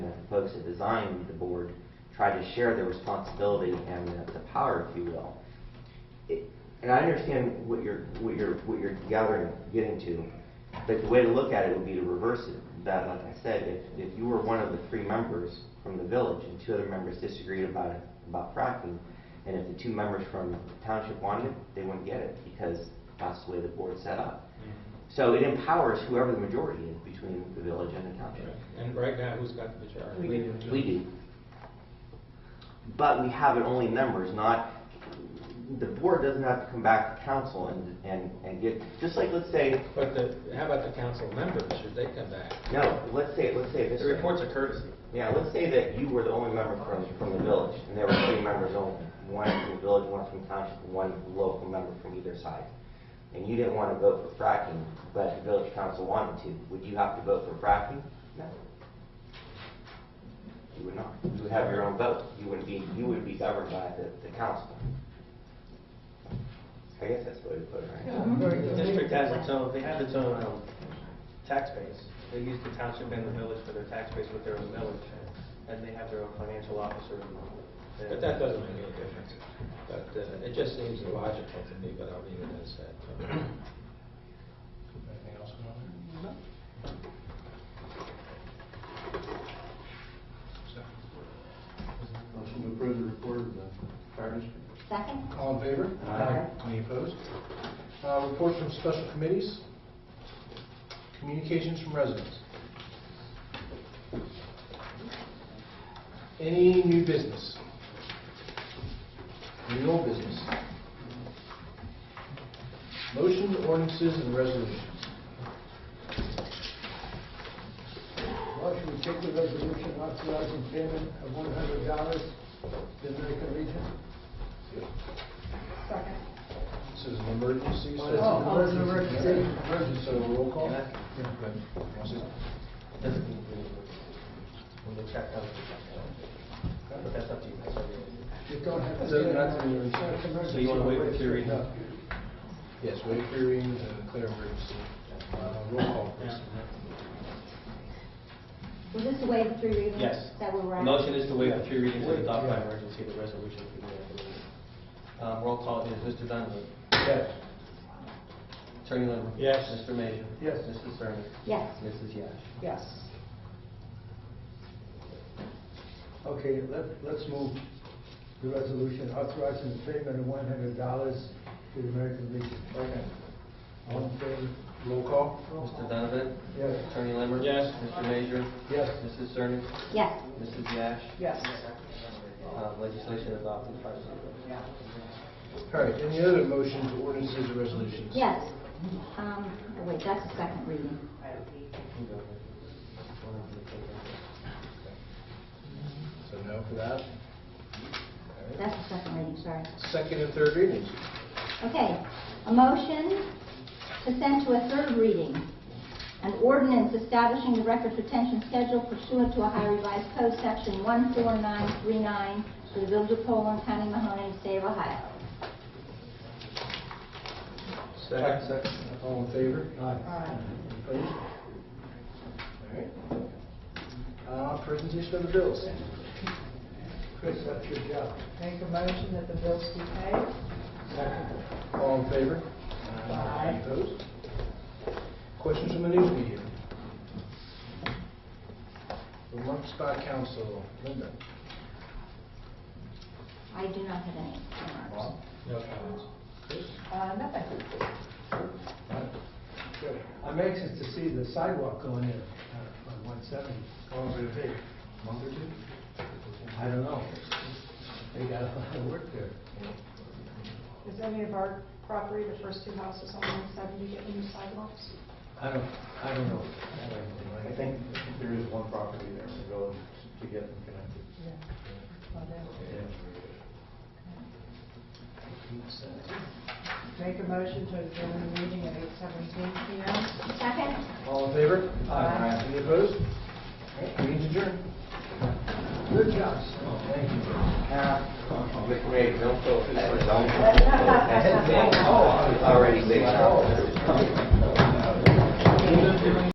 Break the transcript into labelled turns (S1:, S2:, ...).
S1: folks that designed the board tried to share their responsibility and the- the power, if you will. It- And I understand what you're, what you're, what you're gathering, getting to, but the way to look at it would be to reverse it. That, like I said, if, if you were one of the three members from the village and two other members disagreed about, it- about fracking, and if the two members from the township wanted it, they wouldn't get it because that's the way the board's set up. So it empowers whoever the majority is between the village and the township.
S2: And right now, who's got the majority?
S3: We do.
S1: We do. But we have it only members, not, the board doesn't have to come back to council and, and, and get, just like, let's say,
S2: But the, how about the council members, should they come back?
S1: no, let's say, let's say this
S2: The
S1: way.
S2: report's a courtesy.
S1: Yeah, let's say that you were the only member from, from the village, and there were three members only, one from the village, one from township, and one local member from either side. And you didn't want to vote for fracking, but the village council wanted to, would you have to vote for fracking? No. You would not, you would have your own vote, you wouldn't be, you would be governed by the, the council. I guess that's what we put, it, right?
S4: The district has its own, they have its own um, tax base. They use the township and the village for their tax base with their own village, and they have their own financial officer. and-
S2: But that doesn't make any difference. But uh, it just seems illogical to me, but I'll leave it as that.
S3: Anything else going on?
S5: Motion to approve the report of the fire district.
S6: Second?
S3: All in favor?
S5: Aye.
S3: Any opposed? Uh, Reports from special committees. Communications from residents. Any new business? Any old business? Motion, ordinances, and resolutions.
S7: Motion to take the resolution authorizing payment of one hundred dollars to the American Legion.
S6: Second.
S3: This is an emergency. so-
S7: Oh, it's an emergency.
S3: Emergency, so roll call.
S4: When the check comes, the check comes. But that's up to you. That's up to you.
S7: You don't have to.
S3: So
S7: say
S3: that's
S7: it.
S3: an emergency.
S7: It's an
S4: So you wanna wait for
S7: emergency.
S4: your reading?
S3: Yes, wait for your reading and declare emergency. Uh, Roll call, please.
S6: Was this the way the three readings?
S4: Yes.
S6: That were
S4: The
S6: right?
S4: Motion is to waive the three readings and
S7: Wait,
S4: adopt by
S7: yeah.
S4: emergency the resolution. for the recommendation. Um, Roll call is Mr. Donovan.
S7: Yes.
S4: Attorney Lemon.
S2: Yes.
S4: Mr. Major.
S7: Yes.
S4: Mrs. Serna.
S6: Yes.
S4: Mrs. Yash.
S7: Yes. Okay, let, let's move the resolution authorizing the payment of one hundred dollars to the American Legion. Okay. All in favor?
S3: Roll call.
S4: Mr. Donovan.
S7: Yes.
S4: Attorney Lemon.
S2: Yes.
S4: Mr. Major.
S7: Yes.
S4: Mrs. Serna.
S6: Yes.
S4: Mrs. Yash.
S7: Yes.
S4: Uh, Legislation adopted five zero.
S3: All right, any other motions, ordinances, or resolutions?
S6: Yes. Um, oh, wait, that's the second reading.
S3: So no for that.
S6: That's the second reading, sorry.
S3: Second and third readings.
S6: Okay, a motion to send to a third reading, an ordinance establishing the records retention schedule pursuant to Ohio Revised Code Section 14939 for the Village of Poland, County Mahoney, State of Ohio.
S3: Second. All in favor? Aye.
S6: Aye.
S3: Opposed? All right. Uh, Presentation of the bills.
S7: Chris, that's your job.
S8: Make a motion that the bills be paid.
S3: All in favor?
S8: Aye.
S3: Opposed? Questions from the news media? Remarks by council. Linda?
S6: I do not have any remarks.
S3: Bob?
S2: No comments.
S3: Chris?
S8: Uh, nothing.
S3: Joe?
S7: I'm anxious to see the sidewalk going in uh, on one seventy.
S3: How long did it take? A Month or two?
S7: I don't know. They got a lot of work there.
S8: Is any of our property, the first two houses on 170, getting new sidewalks?
S7: I don't, I don't know.
S5: I think there is one property there to go to get them connected.
S8: Yeah. Make a motion to adjourn the meeting at 8:17 PM.
S6: Second?
S3: All in favor?
S8: Aye.
S3: Any opposed? All right, meeting's adjourned.
S7: Good job, Steve.
S3: Thank you.
S1: Uh, Rick, Ray, don't feel bad. Don't- Oh, I was already saying.